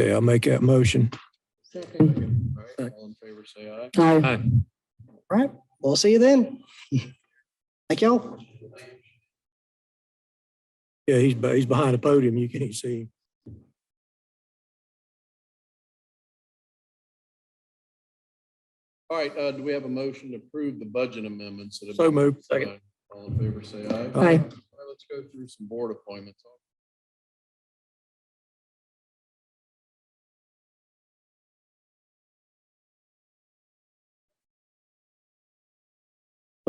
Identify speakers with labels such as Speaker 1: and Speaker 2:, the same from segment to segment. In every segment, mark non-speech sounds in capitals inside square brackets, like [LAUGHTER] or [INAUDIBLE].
Speaker 1: Okay, I'll make that motion.
Speaker 2: Second.
Speaker 3: All right, All in favor, say aye.
Speaker 2: Aye.
Speaker 4: All right, we'll see you then. [LAUGHS] Thank y'all.
Speaker 1: Yeah, he's, be- he's behind the podium. You can't see him.
Speaker 3: All right, uh, do we have a motion to approve the budget amendments? that have
Speaker 1: So
Speaker 3: been-
Speaker 1: moved.
Speaker 3: Second. All in favor, say aye.
Speaker 1: Aye.
Speaker 3: All right, Let's go through some board appointments.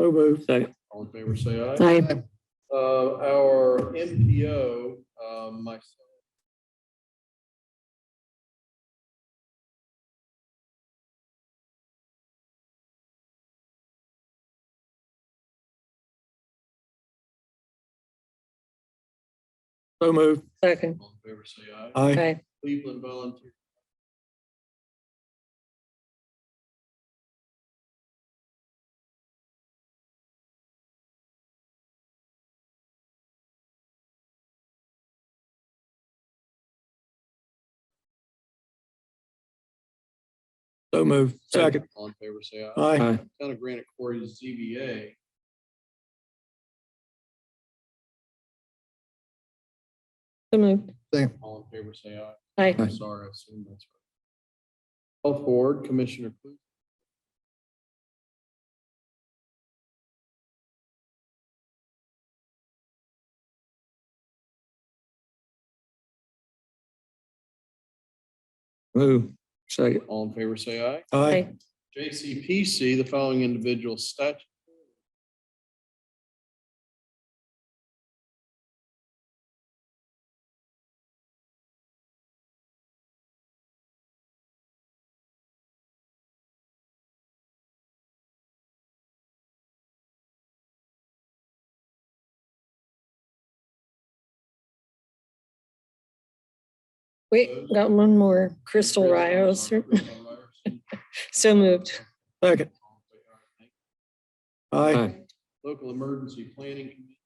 Speaker 1: So moved.
Speaker 5: Second.
Speaker 3: All in favor, say aye.
Speaker 2: Aye.
Speaker 3: Uh, our MPO, uh, myself.
Speaker 1: So moved.
Speaker 2: Second.
Speaker 3: All in favor, say aye.
Speaker 1: Aye.
Speaker 2: Aye.
Speaker 3: Cleveland Volunteer.
Speaker 1: So moved. Second.
Speaker 3: All in favor, say aye.
Speaker 1: Aye.
Speaker 3: Town of Granite Quarry ZBA.
Speaker 2: So moved.
Speaker 3: All in favor, say aye.
Speaker 2: Aye.
Speaker 3: I'm sorry, I assume that's right. Health Board Commissioner Clute.
Speaker 5: Move. Second.
Speaker 3: All in favor, say aye.
Speaker 1: Aye.
Speaker 3: JCPC, the following individual statute.
Speaker 2: Wait, got one more. Crystal Rios. [LAUGHS] So moved.
Speaker 1: Second. Aye.
Speaker 5: Aye.
Speaker 3: Local Emergency Planning Committee.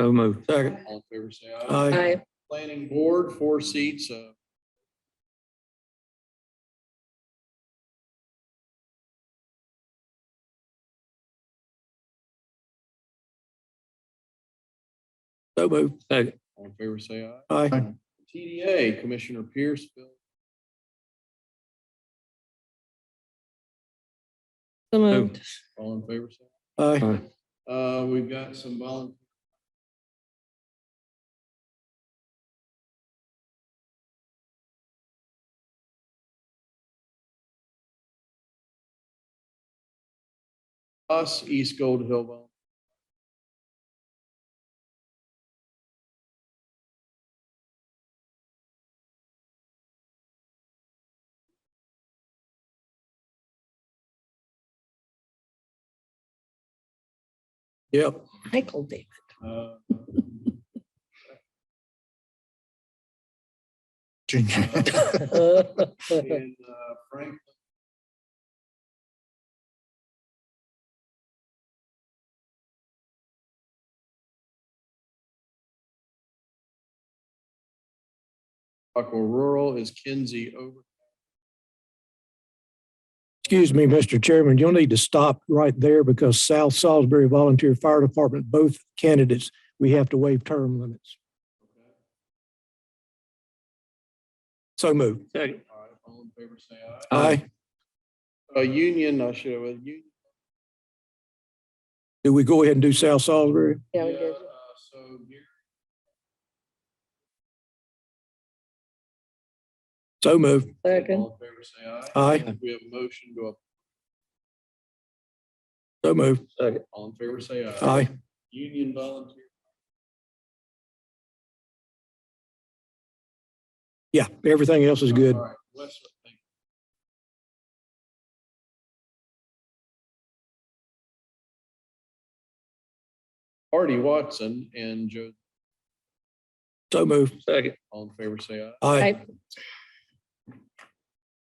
Speaker 5: So move.
Speaker 1: Second.
Speaker 3: All in favor, say aye.
Speaker 1: Aye.
Speaker 2: Aye.
Speaker 3: Planning Board, four seats. uh,
Speaker 1: So moved.
Speaker 5: Second.
Speaker 3: All in favor, say aye.
Speaker 1: Aye.
Speaker 3: TDA, Commissioner Pierce. Bill.
Speaker 2: So moved.
Speaker 3: All in favor, say
Speaker 1: Aye.
Speaker 3: aye. Uh, We've got some volunteers. Us, East Gold Hill. Volunteer.
Speaker 1: Yep.
Speaker 2: Michael David.
Speaker 3: Uh,
Speaker 4: Junior.
Speaker 3: And uh, Frank Aqua Rural is Kinsey over.
Speaker 1: Excuse me, Mr. Chairman, you'll need to stop right there because South Salisbury Volunteer Fire Department, both candidates, we have to waive term limits. So moved.
Speaker 5: Second.
Speaker 3: All right, all in favor, say aye.
Speaker 1: Aye.
Speaker 3: Uh, Union, I should have, uh, Union.
Speaker 1: Do we go ahead and do South Salisbury?
Speaker 2: [LAUGHS] Yeah, we did.
Speaker 3: uh, So Gary,
Speaker 1: So moved.
Speaker 2: Second.
Speaker 3: all in favor, say aye.
Speaker 1: Aye.
Speaker 3: We have a motion to,
Speaker 1: So moved.
Speaker 3: up- all in favor, say aye.
Speaker 1: Aye.
Speaker 3: Union volunteer.
Speaker 1: Yeah, everything else is good.
Speaker 3: All right, Westwood, thank you. Artie Watson and Joe,
Speaker 1: So moved.
Speaker 5: Second.
Speaker 3: all in favor, say aye.
Speaker 1: Aye.
Speaker 2: Aye.